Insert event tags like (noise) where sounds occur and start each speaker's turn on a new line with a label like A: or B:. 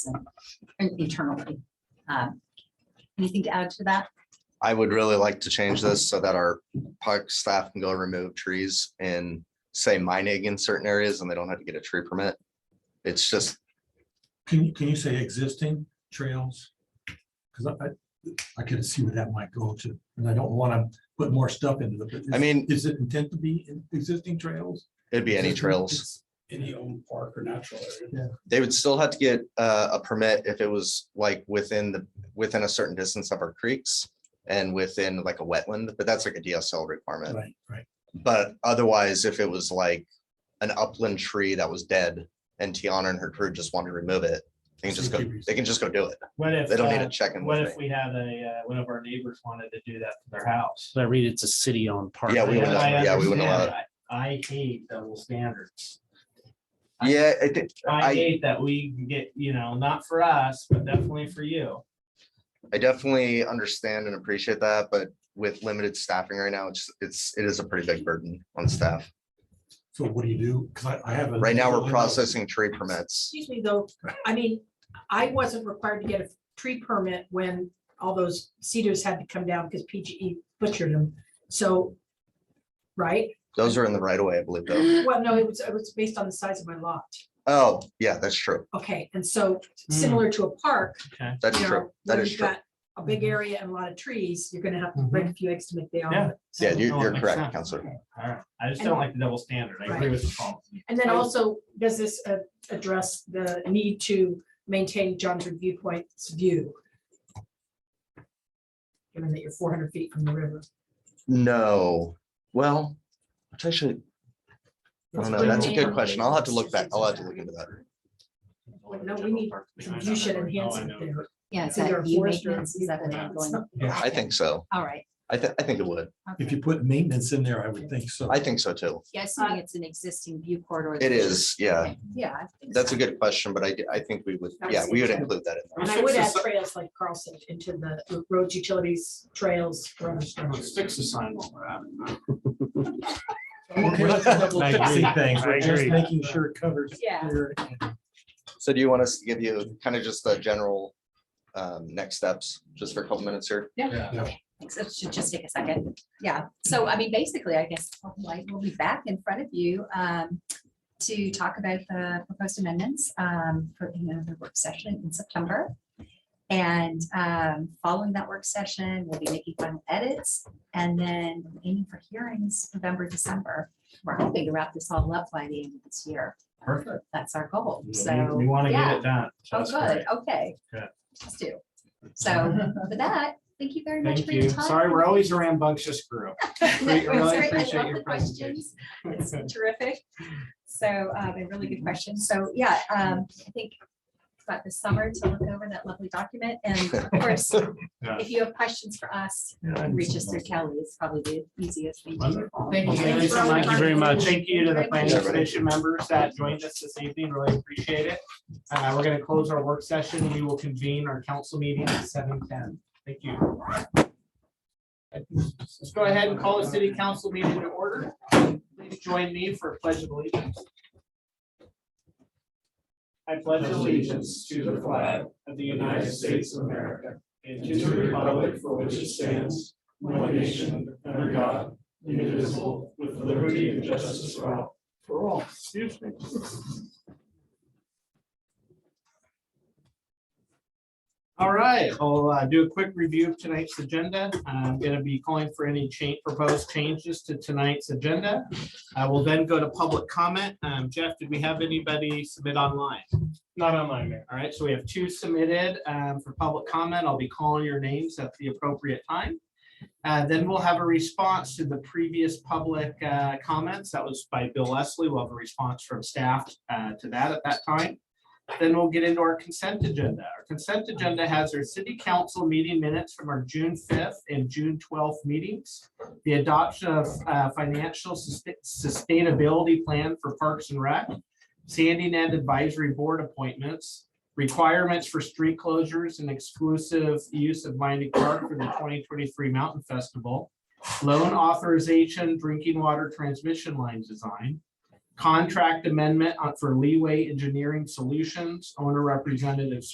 A: internally. Um, Anything to add to that?
B: I would really like to change this so that our park staff can go remove trees and say mining in certain areas and they don't have to get a tree permit. It's just,
C: Can you, can you say existing trails? Because I, I could see where that might go to, and I don't want to put more stuff into it. but
B: I mean-
C: Is it intent to be in existing trails?
B: it'd be any
C: Existing-
B: trails.
D: any own park or natural area.
B: They would still have to get uh, a permit if it was like within the, within a certain distance of our creeks and within like a wetland, but that's like a DSL requirement.
C: Right, right.
B: But otherwise, if it was like an upland tree that was dead and Tiana and her crew just wanted to remove it, they can just go, they can just go do it.
E: What if?
B: They don't need
E: uh,
B: to check in
E: What
B: with
E: if
B: me.
E: we had a, uh, one of our neighbors wanted to do that to their house?
F: So I read it's a city owned park.
B: Yeah, we wouldn't-
E: I
B: yeah, we wouldn't allow
E: understand. I I hate double standards.
B: Yeah, I think, I-
E: I hate that we can get, you know, not for us, but definitely for you.
B: I definitely understand and appreciate that, but with limited staffing right now, it's, it's, it is a pretty big burden on staff.
C: So what do you do? Because I, I have. a-
B: Right now, we're processing tree permits.
G: Excuse me, though, I mean, I wasn't required to get a tree permit when all those cedars had to come down because PGE butchered them, so. Right?
B: Those are in the right of way, I believe, though.
G: Well, no, it was, it was based on the size of my lot.
B: Oh, yeah, that's true.
G: Okay, and so similar to a park,
E: Okay.
B: That's
G: you
B: true.
G: know,
B: Hmm. That
G: where
B: is
G: you've
B: true. Mm-hmm.
G: got a big area and a lot of trees, you're gonna have to break a few eggs to make the omelet. so-
B: Yeah, you-
E: No, it
B: you're
E: makes
B: correct,
E: sense.
B: Counselor.
E: All right. I just don't like the double standard. I agree with the policy.
G: And then also, does this uh, address the need to maintain John's review point's view? Given that you're four hundred feet from the river.
B: No, well, which I should, I don't know, that's a good question. I'll have to look back. I'll have to look into that.
G: No, we need some view shed
E: Oh,
G: enhancement there.
A: Yeah, is
G: Is there
A: that
G: a
A: view
G: forester?
A: maintenance? Is that an ongoing?
B: I think so.
A: All right.
B: I think, I think it would.
A: okay.
C: If you put maintenance in there, I would think so.
B: I think so too.
A: Yeah, assuming it's an existing view corridor.
B: It is, yeah.
A: Okay, Yeah. I think
B: That's
A: so.
B: a good question, but I, I think we would, yeah, we would include that in there.
G: And I would add trails like Carlson into the roads, utilities, trails. road structures.
D: Fix the sign while we're at it. (laughs)
C: Okay, let's double
F: I
C: check
F: agree.
C: some Things,
F: I
C: we're just
F: agree.
C: making sure it covers.
A: Yeah.
C: here.
B: So do you want us to give you kind of just the general um, next steps, just for a couple minutes here?
A: Thanks. It should just take a second. Yeah. So I mean, basically, I guess, like, we'll be back in front of you um, to talk about the proposed amendments um, for you know, the work session in September. And um, following that work session, we'll be making final edits and then aiming for hearings November, December. We're hoping to wrap this all up by the end of this year.
E: Perfect.
A: That's our goal.
E: We-
A: So.
E: We want to
A: yeah.
E: get it done. so
A: Oh,
E: that's great.
A: good, okay.
E: Good.
A: Let's do. So
E: (laughs)
A: for that, thank you very much
E: Thank
A: for your
E: you.
A: time.
E: Sorry,
A: (laughs)
E: we're always a rambunctious (laughs) group.
A: No,
E: we really
A: sorry, I
E: appreciate
A: love
E: your
A: the questions. It's
E: (laughs)
A: terrific. So, um, and really good questions. So, yeah, um, I think it's about the summer to look over that lovely document. And
E: (laughs)
A: of course,
E: Yeah.
A: if you have questions for us, you can reach us through Kelly. It's probably the easiest thing to do.
E: Thank you.
G: Thank you
E: Lisa, Mike,
F: Thank you very much.
E: Thank you to the planning
B: Everybody.
E: commission members that joined us this evening. Really appreciate it. Uh, we're gonna close our work session. We will convene our council meeting at seven ten. Thank you. Let's go ahead and call the city council meeting to order. Please join me for a pledge of allegiance. I pledge allegiance to the flag of the United States of America and to the republic for which it stands, one nation, under God, indivisible, with liberty and justice for all. For all, excuse me. All right, I'll uh, do a quick review of tonight's agenda. I'm going to be calling for any change, proposed changes to tonight's agenda. I will then go to public comment. Um, Jeff, did we have anybody submit online? Not online, Mayor. All right, so we have two submitted um, for public comment. I'll be calling your names at the appropriate time. Uh, Then we'll have a response to the previous public uh, comments. That was by Bill Leslie. We'll have a response from staff uh, to that at that time. Then we'll get into our consent agenda. Our consent agenda has our city council meeting minutes from our June 5th and June 12th meetings, the adoption of uh, financial sus- sustainability plan for Parks and Rec, Sandy Net Advisory Board appointments, requirements for street closures and exclusive use of Mining Park for the twenty twenty-three Mountain Festival, loan authorization, drinking water transmission line design, uh, contract amendment on- for Leeway Engineering Solutions, owner representative